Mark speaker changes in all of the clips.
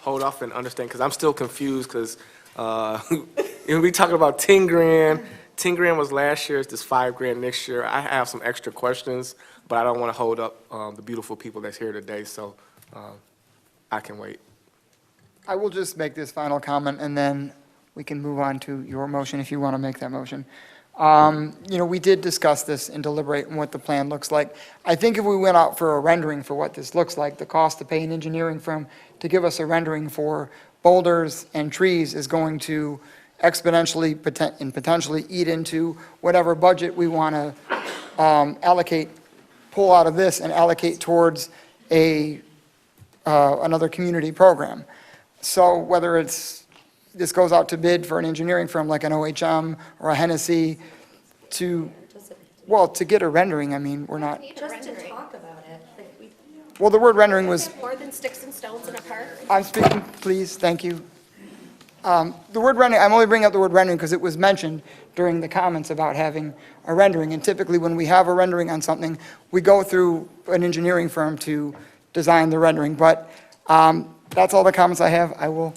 Speaker 1: hold off and understand, because I'm still confused, because we talking about 10 grand, 10 grand was last year's, this 5 grand next year. I have some extra questions, but I don't want to hold up um, the beautiful people that's here today, so um, I can wait.
Speaker 2: I will just make this final comment, and then we can move on to your motion if you want to make that motion. Um, You know, we did discuss this and deliberate on what the plan looks like. I think if we went out for a rendering for what this looks like, the cost to pay an engineering firm to give us a rendering for boulders and trees is going to exponentially poten- and potentially eat into whatever budget we want to um, allocate, pull out of this and allocate towards a uh, another community program. So whether it's, this goes out to bid for an engineering firm like an OHM or a Hennessy to, well, to get a rendering, I mean, we're not,
Speaker 3: Just to talk about it, like we
Speaker 2: well, the word rendering was,
Speaker 3: more than sticks and stones in a park.
Speaker 2: I'm speaking, please, thank you. Um, The word rendering, I'm only bringing up the word rendering because it was mentioned during the comments about having a rendering. And typically, when we have a rendering on something, we go through an engineering firm to design the rendering. But um, that's all the comments I have. I will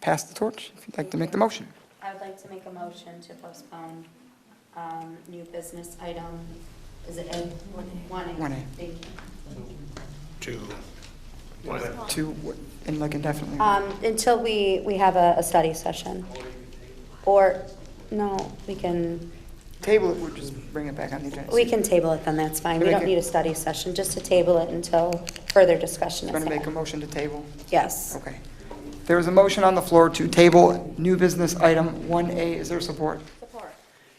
Speaker 2: pass the torch if you'd like to make the motion.
Speaker 4: I would like to make a motion to postpone um, new business item, is it A? One A.
Speaker 2: One A.
Speaker 4: Thank you.
Speaker 2: To, and like indefinitely.
Speaker 4: Um, Until we, we have a, a study session. Or, no, we can,
Speaker 2: Table it, we'll just bring it back on the agenda.
Speaker 4: we can table it then, that's fine. We don't need a study session, just to table it until further discussion
Speaker 2: Going
Speaker 4: is
Speaker 2: to make a
Speaker 4: had.
Speaker 2: motion to table?
Speaker 4: Yes.
Speaker 2: Okay. There is a motion on the floor to table new business item 1A. Is there support?
Speaker 3: Support.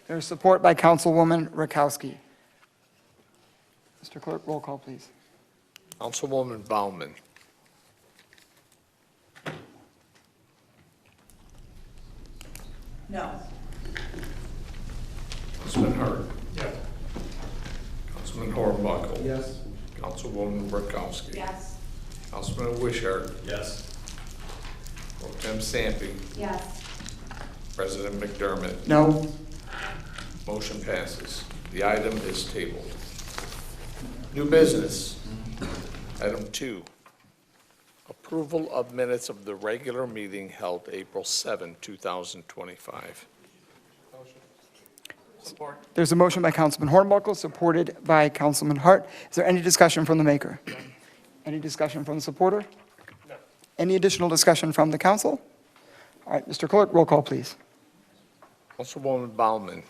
Speaker 2: There's support by Councilwoman Rakowski. Mr. Clerk, roll call, please.
Speaker 5: Councilwoman Bauman. No. Councilman Hurd. Yes. Councilman Hornbuckle. Yes. Councilwoman Burkowski.
Speaker 4: Yes.
Speaker 5: Councilman Wishart.
Speaker 6: Yes.
Speaker 5: Pro Tem Sampe.
Speaker 4: Yes.
Speaker 5: President McDermott.
Speaker 2: No?
Speaker 5: Motion passes. The item is tabled. New business. Item two, approval of minutes of the regular meeting held April 7, 2025.
Speaker 2: There's a motion by Councilman Hornbuckle, supported by Councilman Hart. Is there any discussion from the maker? Any discussion from the supporter? No. Any additional discussion from the council? All right, Mr. Clerk, roll call, please.
Speaker 5: Councilwoman Baumann.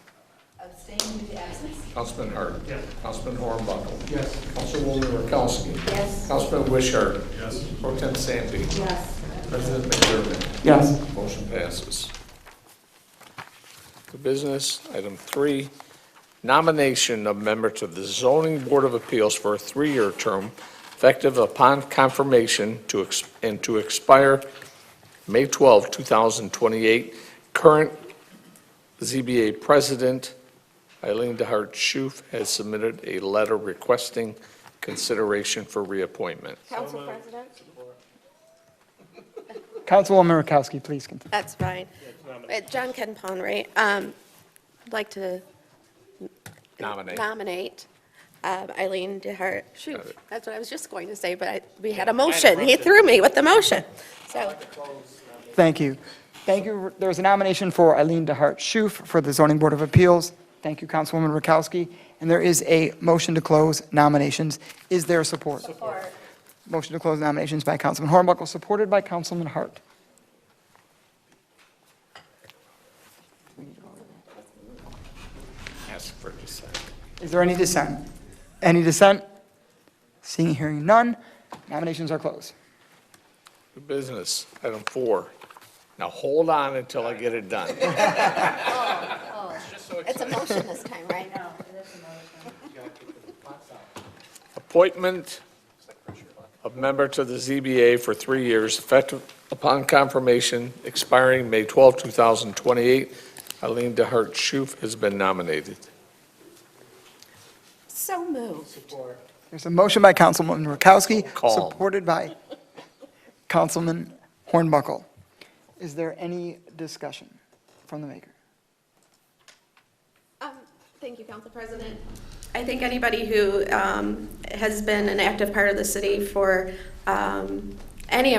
Speaker 4: Abstain with absence.
Speaker 5: Councilman Hart. Yes. Councilman Hornbuckle. Yes. Councilwoman Rakowski.
Speaker 4: Yes.
Speaker 5: Councilman Wishart.
Speaker 6: Yes.
Speaker 5: Pro Tem Sampe.
Speaker 4: Yes.
Speaker 5: President McDermott.
Speaker 2: Yes.
Speaker 5: Motion passes. The business, item three, nomination of member to the Zoning Board of Appeals for a three-year term effective upon confirmation to, ex- and to expire May 12, 2028. Current ZBA President Eileen DeHart Schuf has submitted a letter requesting consideration for reappointment.
Speaker 3: Council President?
Speaker 2: Councilwoman Rakowski, please continue.
Speaker 3: That's fine. Uh, John Ken Pond, right? Um, I'd like to
Speaker 5: Nominate.
Speaker 3: nominate um, Eileen DeHart.
Speaker 5: Got
Speaker 3: Shoot,
Speaker 5: it.
Speaker 3: that's what I was just going to say, but I- we had a motion. He threw me with the motion. So,
Speaker 2: Thank you. Thank you. There's a nomination for Eileen DeHart Schuf for the Zoning Board of Appeals. Thank you, Councilwoman Rakowski. And there is a motion to close nominations. Is there support? Support. Motion to close nominations by Councilman Hornbuckle, supported by Councilman Hart.
Speaker 5: Ask for dissent.
Speaker 2: Is there any dissent? Any dissent? Seeing, hearing none, nominations are closed.
Speaker 5: New business, item four. Now, hold on until I get it done.
Speaker 3: it's a motion this time, right?
Speaker 5: Appointment of member to the ZBA for three years, effective upon confirmation, expiring May 12, 2028. Eileen DeHart Schuf has been nominated.
Speaker 3: So moved.
Speaker 2: There's a motion by Councilwoman Rakowski,
Speaker 5: Call.
Speaker 2: supported by Councilman Hornbuckle. Is there any discussion from the maker?
Speaker 3: Um, Thank you, Council President. I think anybody who um, has been an active part of the city for um, any